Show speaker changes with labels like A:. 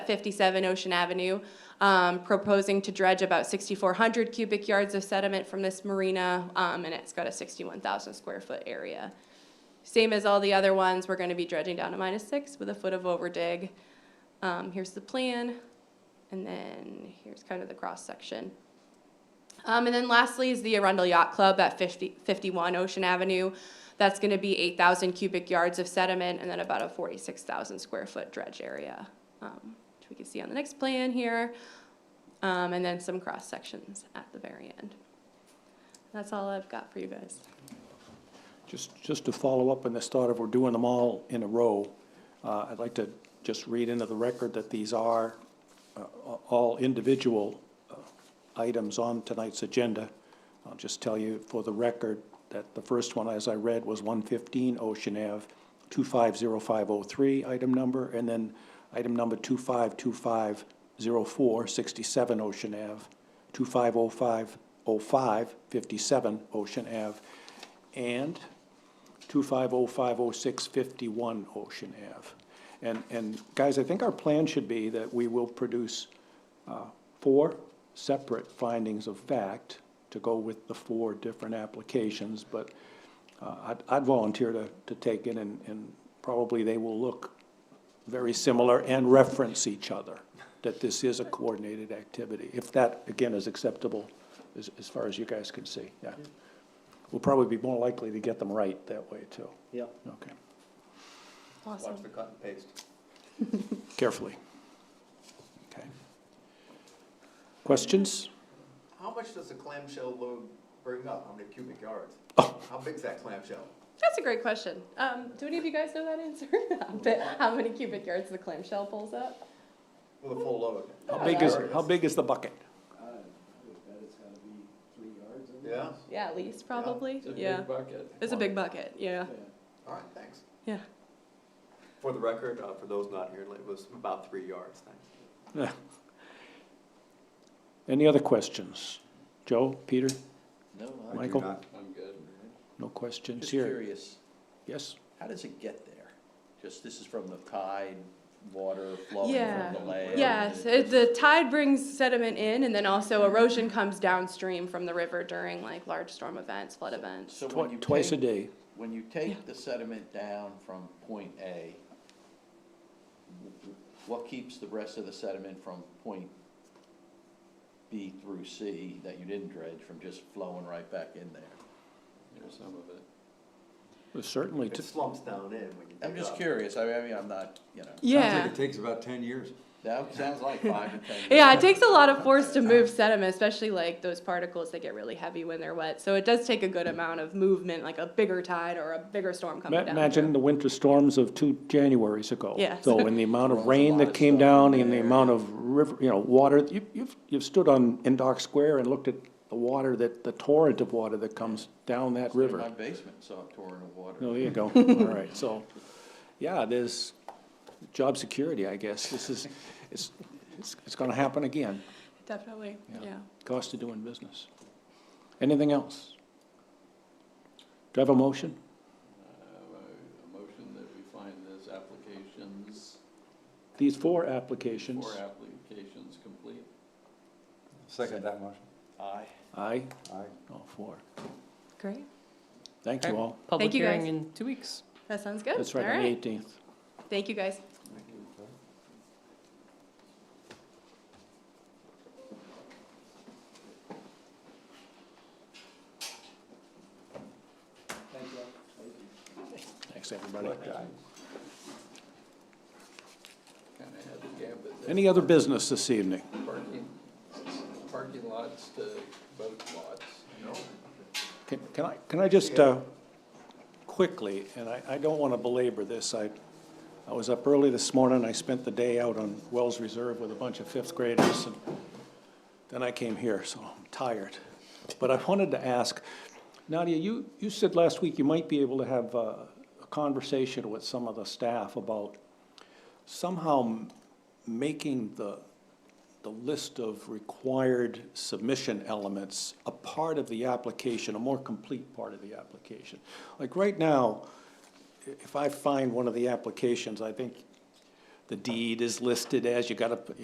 A: 57 Ocean Avenue, um, proposing to dredge about 6,400 cubic yards of sediment from this marina, um, and it's got a 61,000 square foot area. Same as all the other ones, we're gonna be dredging down to minus six with a foot of overdig. Um, Here's the plan, and then here's kind of the cross-section. Um, and then lastly is the Arundel Yacht Club at 50, 51 Ocean Avenue. That's gonna be 8,000 cubic yards of sediment and then about a 46,000 square foot dredge area, um, which we can see on the next plan here. Um, and then some cross sections at the very end. That's all I've got for you guys.
B: Just, just to follow up on this thought of we're doing them all in a row, uh, I'd like to just read into the record that these are uh, all individual uh, items on tonight's agenda. I'll just tell you for the record that the first one, as I read, was 115 Ocean Ave, 250503, item number, and then item number 252504, 67 Ocean Ave, 250505, 57 Ocean Ave, and 25050651 Ocean Ave. And, and guys, I think our plan should be that we will produce uh, four separate findings of fact to go with the four different applications, but uh, I'd- I'd volunteer to, to take it, and, and probably they will look very similar and reference each other, that this is a coordinated activity, if that, again, is acceptable as, as far as you guys can see, yeah. We'll probably be more likely to get them right that way, too.
C: Yeah.
B: Okay,
A: Awesome.
D: Watch the cut and paste.
B: carefully. Okay. Questions?
D: How much does a clamshell load bring up? How many cubic yards?
B: Oh.
D: How big's that clamshell?
A: That's a great question. Um, do any of you guys know that answer? I bet- How many cubic yards the clamshell pulls up?
D: With a full load?
B: How big is, how big is the bucket?
C: I would bet it's gotta be three yards. I
D: Yeah,
C: guess.
A: Yeah, at least probably, yeah.
E: bucket.
A: It's a big bucket, yeah,
D: all right, thanks.
A: yeah.
D: For the record, uh, for those not here, it was about three yards, thanks.
B: Any other questions? Joe, Peter,
C: No, I'm
B: Michael?
E: I'm good.
B: No questions
C: just
B: here.
C: curious,
B: Yes?
C: how does it get there? Just, this is from the tide, water flowing
A: Yeah.
C: from the land?
A: Yes, it- the tide brings sediment in, and then also erosion comes downstream from the river during like large storm events, flood events.
C: So when you
B: Twi- Twice a
C: take-
B: day.
C: When you take the sediment down from point A, what keeps the rest of the sediment from point B through C that you didn't dredge from just flowing right back in there?
E: There's some of it.
B: Certainly,
D: It
B: t-
D: slumps down in when you dig
C: I'm just
D: up.
C: curious, I mean, I mean, I'm not, you know,
A: Yeah.
F: takes about ten years.
C: that sounds like five to ten years.
A: Yeah, it takes a lot of force to move sediment, especially like those particles that get really heavy when they're wet. So it does take a good amount of movement, like a bigger tide or a bigger storm
B: ma-
A: coming down.
B: imagine the winter storms of two Januaries ago.
A: Yes.
B: So, and the amount of
C: Well,
B: rain
C: a lot
B: that
C: of
B: came
C: stuff in
B: down, and the
C: there.
B: amount of river, you know, water, you- you've, you've stood on, in Dock Square and looked at the water that, the torrent of water that comes down that river.
C: My basement saw a torrent of water.
B: Oh, there you go. All right, so, yeah, there's job security, I guess. This is, it's, it's, it's gonna happen again,
A: Definitely,
B: Yeah.
A: yeah.
B: cost of doing business. Anything else? Do I have a motion?
E: Uh, A motion that we find those applications,
B: These four applications.
E: four applications complete.
F: Second that motion.
C: Aye.
B: Aye,
F: Aye.
B: all four.
A: Great.
B: Thank you
G: Okay.
B: all.
G: Public
A: Thank you, guys.
G: hearing in two weeks.
A: That sounds good.
B: That's right,
A: All
B: on the eighteenth.
A: Thank you, guys.
B: Thanks, everybody.
E: Kind of had the gambit there.
B: Any other business this evening?
E: Parking, parking lots to boat lots. No.
B: Can can I, can I just, uh, quickly, and I, I don't want to belabor this, I, I was up early this morning, I spent the day out on Wells Reserve with a bunch of fifth graders, and then I came here, so I'm tired. But I wanted to ask, Nadia, you, you said last week you might be able to have uh, a conversation with some of the staff about somehow m- making the, the list of required submission elements a part of the application, a more complete part of the application. Like right now, i- if I find one of the applications, I think the deed is listed as, you gotta,